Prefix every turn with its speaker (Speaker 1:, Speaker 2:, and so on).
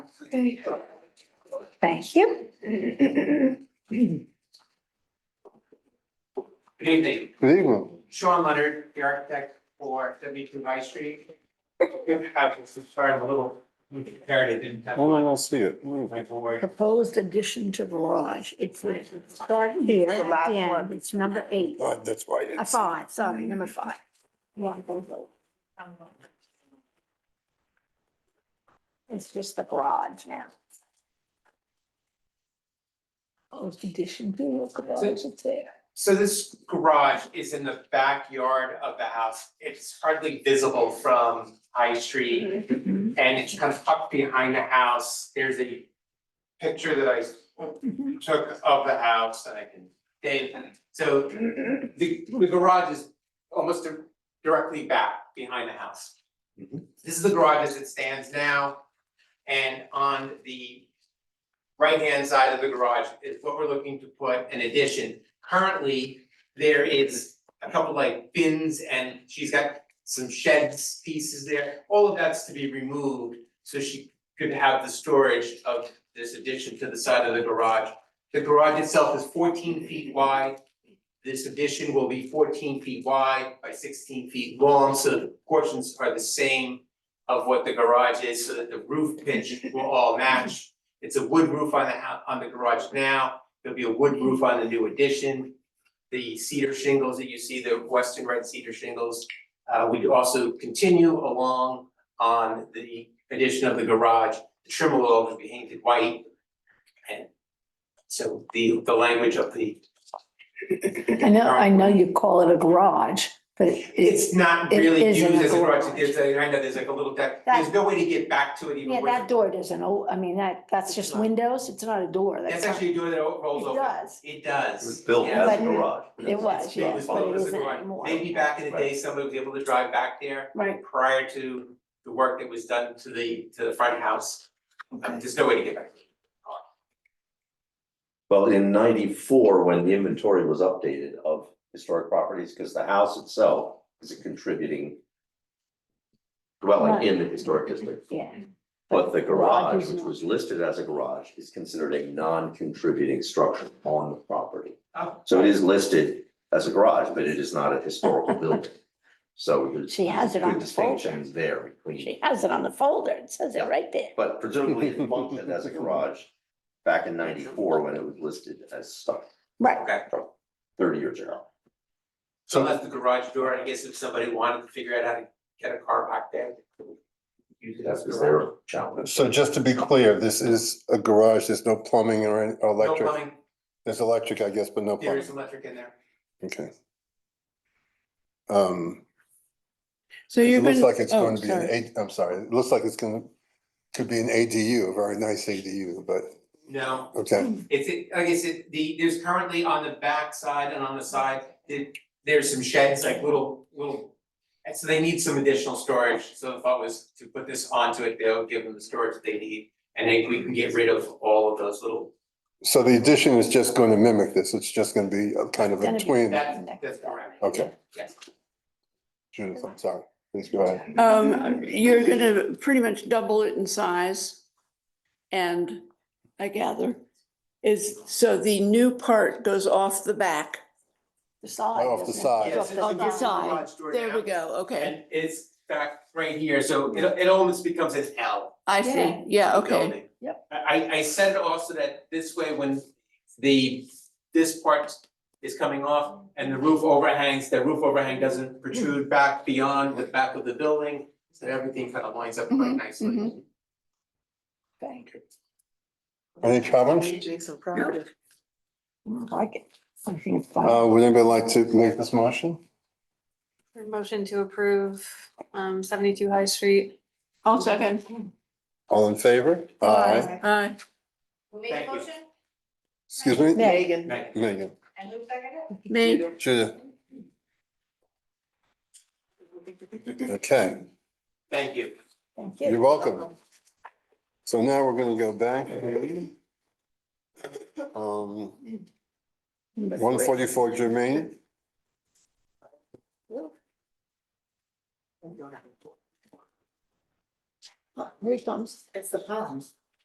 Speaker 1: Okay. Thank you.
Speaker 2: Good evening,
Speaker 3: Good evening.
Speaker 2: Sean Leonard, the architect for seventy-two High Street. I was sorry, I'm a little prepared, I didn't have
Speaker 3: Oh, no, I don't see it. Mm.
Speaker 2: my board.
Speaker 4: Proposed addition to the lodge. It's, it's starting here,
Speaker 1: The
Speaker 4: the
Speaker 1: last one.
Speaker 4: last one. It's number eight,
Speaker 3: God, that's why I
Speaker 4: a
Speaker 3: didn't see
Speaker 4: five, sorry, number five. Yeah, both of them. It's just the garage now. Proposed addition to the garage, it's there.
Speaker 2: So this garage is in the backyard of the house. It's hardly visible from High Street.
Speaker 4: Mhm.
Speaker 2: And it's kind of tucked behind the house. There's a picture that I
Speaker 4: Mhm.
Speaker 2: took of the house that I can date. So the the garage is almost di- directly back behind the house.
Speaker 3: Mhm.
Speaker 2: This is the garage as it stands now. And on the right-hand side of the garage is what we're looking to put in addition. Currently, there is a couple like bins and she's got some sheds pieces there. All of that's to be removed, so she could have the storage of this addition to the side of the garage. The garage itself is fourteen feet wide. This addition will be fourteen feet wide by sixteen feet long, so the portions are the same of what the garage is, so that the roof pitch will all match. It's a wood roof on the hou- on the garage now, there'll be a wood roof on the new addition. The cedar shingles that you see, the western red cedar shingles, uh, we also continue along on the addition of the garage. The trim will always be painted white. And so the, the language of the,
Speaker 4: I know, I know you call it a garage, but it's,
Speaker 2: it's not
Speaker 4: It
Speaker 2: really
Speaker 4: is
Speaker 2: used
Speaker 4: in a
Speaker 2: as a garage,
Speaker 4: garage.
Speaker 2: there's a, I know, there's like a little deck,
Speaker 4: That-
Speaker 2: there's no way to get back to it even
Speaker 4: yeah,
Speaker 2: with.
Speaker 4: that door doesn't, o- I mean, that, that's just windows, it's not a door.
Speaker 2: That's
Speaker 4: not-
Speaker 2: actually a door that rolls
Speaker 4: It
Speaker 2: open.
Speaker 4: does.
Speaker 2: It does.
Speaker 5: It was built
Speaker 2: yeah.
Speaker 5: as a
Speaker 4: But-
Speaker 5: garage.
Speaker 4: It was,
Speaker 2: It
Speaker 4: yeah,
Speaker 2: was
Speaker 4: but
Speaker 2: built
Speaker 4: it
Speaker 2: as a
Speaker 4: isn't
Speaker 2: garage.
Speaker 4: anymore.
Speaker 2: Maybe back in the day, somebody was able to drive back there
Speaker 4: Right,
Speaker 2: prior to the work that was done to the, to the front house. Um, There's no way to get back.
Speaker 5: Well, in ninety-four, when the inventory was updated of historic properties, because the house itself is a contributing dwelling in the historic district,
Speaker 4: yeah.
Speaker 5: but the
Speaker 4: Garage
Speaker 5: garage,
Speaker 4: is
Speaker 5: which
Speaker 4: not.
Speaker 5: was listed as a garage, is considered a non-contributing structure on the property.
Speaker 2: Oh.
Speaker 5: So it is listed as a garage, but it is not a historical building. So there's
Speaker 4: She has it on
Speaker 5: good
Speaker 4: the folder.
Speaker 5: distinctions there between.
Speaker 4: She has it on the folder. It says it right there.
Speaker 5: But presumably it functioned as a garage back in ninety-four when it was listed as stuff
Speaker 4: Right.
Speaker 2: Okay,
Speaker 5: thirty years ago.
Speaker 2: so that's the garage door, I guess if somebody wanted to figure out how to get a car back there. they could Use it as a
Speaker 5: Is
Speaker 2: garage.
Speaker 5: there a challenge?
Speaker 3: So just to be clear, this is a garage, there's no plumbing or any- or
Speaker 2: No
Speaker 3: electric?
Speaker 2: plumbing,
Speaker 3: There's electric, I guess, but no
Speaker 2: there
Speaker 3: plumbing,
Speaker 2: is electric in there.
Speaker 3: okay. Um,
Speaker 6: So you're
Speaker 3: it
Speaker 6: gonna.
Speaker 3: looks like it's
Speaker 6: oh,
Speaker 3: going to be an
Speaker 6: sorry.
Speaker 3: A, I'm sorry, it looks like it's gonna, could be an ADU, a very nice ADU, but,
Speaker 2: No,
Speaker 3: okay.
Speaker 2: It's, it- like I said, the, there's currently on the back side and on the side, there- there's some sheds, like little, little. And so they need some additional storage, so the thought was to put this onto it, they'll give them the storage they need. And then we can get rid of all of those little,
Speaker 3: So the addition is just going to mimic this, it's just gonna be a kind of a
Speaker 4: Gonna be
Speaker 3: twin,
Speaker 2: that- that's correct.
Speaker 3: okay.
Speaker 2: Yes.
Speaker 3: Judith, I'm sorry, please go ahead.
Speaker 6: Um, you're gonna pretty much double it in size. And I gather is, so the new part goes off the back.
Speaker 4: The side.
Speaker 3: Off the
Speaker 4: doesn't it?
Speaker 3: side.
Speaker 4: It's
Speaker 2: Yeah,
Speaker 4: off
Speaker 2: so
Speaker 4: the
Speaker 2: it's a
Speaker 6: on the
Speaker 4: side.
Speaker 6: side.
Speaker 2: garage door
Speaker 6: There
Speaker 2: now,
Speaker 6: we go. Okay.
Speaker 2: And it's back right here, so it, it almost becomes an L.
Speaker 6: I
Speaker 4: Yeah.
Speaker 6: see. Yeah, okay.
Speaker 2: building. I, I said it also that this way, when the, this part is coming off and the roof overhangs, the roof overhang doesn't protrude back beyond the back of the building. So everything kind of lines up quite
Speaker 6: Mhm,
Speaker 2: nicely.
Speaker 4: Okay.
Speaker 3: Any comments?
Speaker 7: Jason Crowder.
Speaker 4: I Like it. I think it's fine.
Speaker 3: Uh, would anybody like to make this motion?
Speaker 7: Motion to approve, um, seventy-two High Street.
Speaker 6: I'll second.
Speaker 3: All in favor? Aye.
Speaker 6: Aye.
Speaker 8: Made
Speaker 2: Thank
Speaker 8: a
Speaker 2: you.
Speaker 8: motion?
Speaker 3: Excuse me?
Speaker 7: Megan.
Speaker 2: Right.
Speaker 3: Megan.
Speaker 8: And who seconded it?
Speaker 6: Me.
Speaker 3: Judith. Okay,
Speaker 2: Thank you.
Speaker 4: Thank you.
Speaker 3: you're welcome. So now we're gonna go back. Um, one forty-four Jermaine,
Speaker 4: Here he comes.
Speaker 7: It's the palms.